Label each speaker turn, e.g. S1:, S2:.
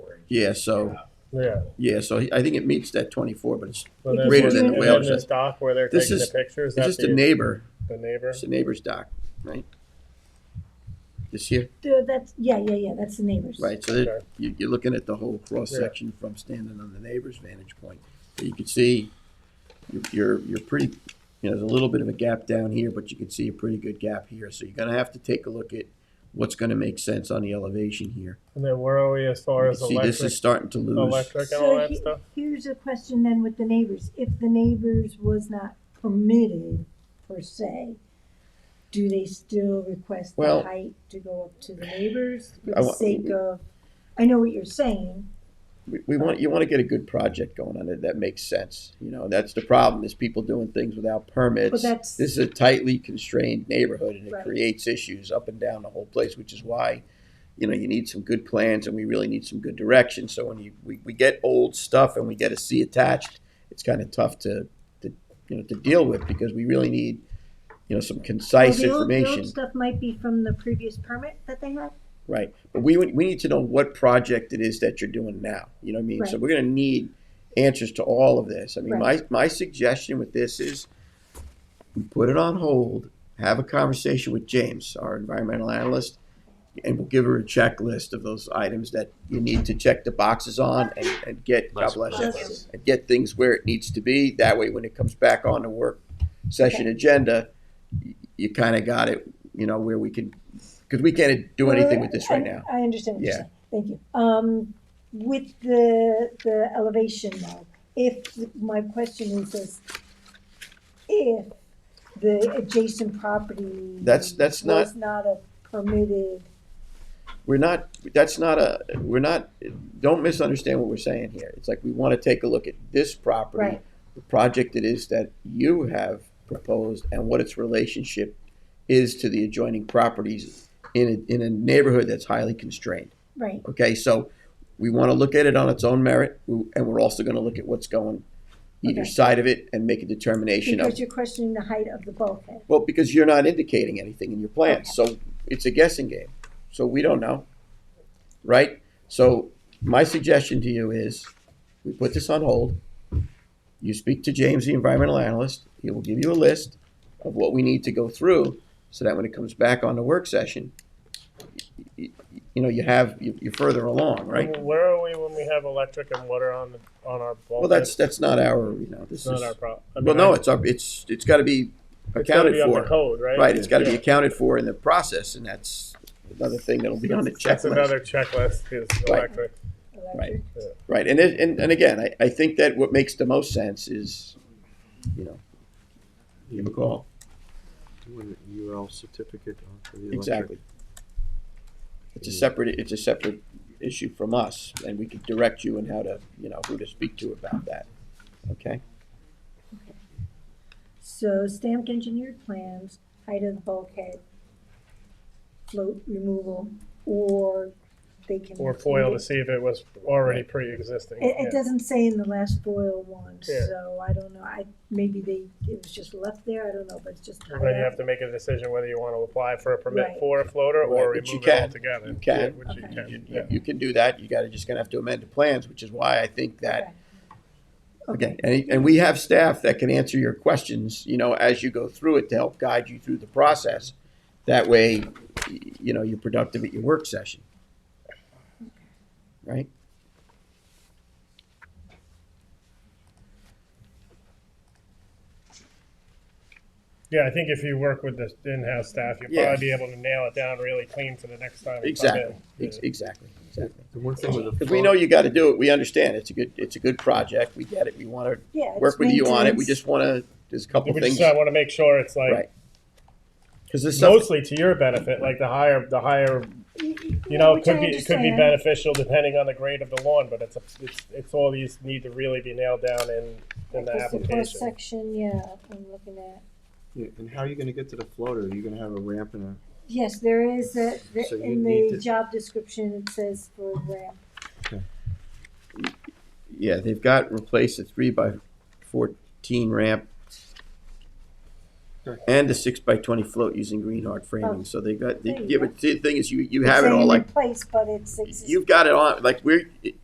S1: Yeah, so,
S2: Yeah.
S1: yeah, so I think it meets that twenty-four, but it's,
S2: So then
S1: Greater
S2: when-
S1: than the
S2: and
S1: whale
S2: then
S1: shark.
S2: This dock where they're
S1: This
S2: taking the
S1: is-
S2: pictures,
S1: it's
S2: that's
S1: just a
S2: the,
S1: neighbor,
S2: the neighbor?
S1: it's a neighbor's dock, right? This here,
S3: The- That's, yeah, yeah, yeah, that's the neighbors.
S1: right, so that-
S2: Okay.
S1: you, you're looking at the whole cross-section from standing on the neighbor's vantage point. So You can see, you- you're, you're pretty, you know, there's a little bit of a gap down here, but you can see a pretty good gap here, so you're gonna have to take a look at what's gonna make sense on the elevation here.
S2: And then where are we as far
S1: You
S2: as
S1: can See, this
S2: electric,
S1: is starting to lose,
S2: electric and all
S3: So
S2: that
S3: he-
S2: stuff?
S3: here's a question then with the neighbors, if the neighbors was not permitted per se, do they still request
S1: Well-
S3: the height to go up to the neighbors for
S1: I
S3: the
S1: wa-
S3: sake of, I know what you're saying,
S1: we, we want, you wanna get a good project going on it, that makes sense, you know, that's the problem, is people doing things without permits.
S3: but that's,
S1: This is a tightly constrained neighborhood and it
S3: Right.
S1: creates issues up and down the whole place, which is why, you know, you need some good plans and we really need some good direction. So when you, we, we get old stuff and we get a C attached, it's kind of tough to, to, you know, to deal with because we really need, you know, some
S3: well,
S1: concise
S3: the old, the
S1: information.
S3: old stuff might be from the previous permit that they had,
S1: Right, but we, would- we need to know what project it is that you're doing now, you know what I mean? So
S3: Right.
S1: we're gonna need answers to all of this. I mean, my, my suggestion with this is we put it on hold, have a conversation with James, our environmental analyst, and we'll give her a checklist of those items that you need to check the boxes on and, and get, God bless you,
S3: Bless
S1: and get things where it needs to be. That way, when it comes back on the work session agenda, y- you kinda got it, you know, where we can, cause we can't do anything with this right
S3: I-
S1: now.
S3: I understand what you're
S1: Yeah.
S3: saying, thank you. Um, with the, the elevation though, if, my question is this, if the adjacent property.
S1: That's- that's not-
S3: Was not a permitted,
S1: we're not, that's not a, we're not, don't misunderstand what we're saying here. It's like we want to take a look at this property,
S3: Right.
S1: the project it is that you have proposed and what its relationship is to the adjoining properties in a, in a neighborhood that's highly constrained.
S3: right,
S1: Okay, so we want to look at it on its own merit and we're also going to look at what's going either
S3: Okay.
S1: side of it and make a determination of
S3: because you're questioning the height of the bulkhead.
S1: well, because you're not indicating anything in your plan, so it's a guessing game. So we don't know, right? So my suggestion to you is, we put this on hold. You speak to James, the environmental analyst. He will give you a list of what we need to go through, so that when it comes back on the work session, y- y- you know, you have, you- you're further along, right?
S2: Where are we when we have electric and water on, the on our
S1: Well,
S2: bulkhead?
S1: that's, that's not our, you know, this
S2: It's
S1: is,
S2: not our problem.
S1: well, no, it's, our- it's, it's gotta be accounted for.
S2: Code, right?
S1: Right, it's gotta be
S2: Yeah.
S1: accounted for in the process, and that's another thing that'll be on the
S2: That's
S1: checklist.
S2: another
S1: Right.
S2: checklist, is electric.
S3: electric.
S1: Right. Right, and it, and, and again, I, I think that what makes the most sense is, you know, give him a call,
S4: With a UL certificate uh, for the electric.
S1: exactly. It's a separate, it's a separate issue from us, and we can direct you in how to, you know, who to speak to about that, okay?
S3: So stamped engineered plans, height of the bulkhead, float removal, or they can.
S2: Or foil
S3: they-
S2: to see if it was already pre-existing.
S3: It, it
S2: Yeah.
S3: doesn't say in the last foil one,
S2: Yeah.
S3: so I don't know, I, maybe they, it was just left there, I don't know, but it's just.
S2: Well, Then you have to make a decision whether you want to apply for a permit
S3: Right.
S2: for a floater or
S1: Right, which you
S2: remove it
S1: can.
S2: altogether.
S1: You can.
S2: Yeah, Which you
S3: Okay.
S1: You,
S2: can, yeah.
S1: you- you can do that, you gotta, just gonna have to amend the plans, which is why I think that Okay, and, and we have staff that can answer your questions, you know, as you go through it to help guide you through the process. That way, y- you know, you're productive at your work session. Right?
S2: Yeah, I think if you work with the in-house staff, you'll
S1: Yeah.
S2: probably be able to nail it down really clean for the next time. you come in.
S1: Exactly, ex- exactly, exactly.
S4: The one thing with the.
S1: Because we know you gotta do it, we understand, it's a good, it's a good project, we get it, we wanna
S3: Yeah.
S1: work
S3: it's
S1: with you on it, we
S3: maintenance.
S1: just wanna, there's a couple
S2: We
S1: things.
S2: just want to make sure it's
S1: Right.
S2: like,
S1: Because this stuff,
S2: mostly to your benefit, like the higher, the higher, you know, it
S3: Which I
S2: could be, it could be
S3: understand.
S2: beneficial depending on the grade of the lawn, but it's, a- it's, it's all these need to really be nailed down in, in the
S3: Because cross
S2: application.
S3: Section, yeah, I'm looking at,
S4: Yeah, And how are you gonna get to the floater? You're gonna have a ramp and a,
S3: yes, there is a, the-
S4: So you
S3: in
S4: need
S3: the
S4: to-
S3: job description, it says for ramp.
S1: yeah, they've got, replaced a three by fourteen ramp
S4: Correct.
S1: and a six by twenty float using green hard framing, so they got, they-
S3: Oh, There you
S1: yeah,
S3: go.
S1: but see, the thing is, you, you
S3: It's
S1: have it all
S3: saying
S1: like
S3: Replace, but it's. existing.
S1: you've got it on like we're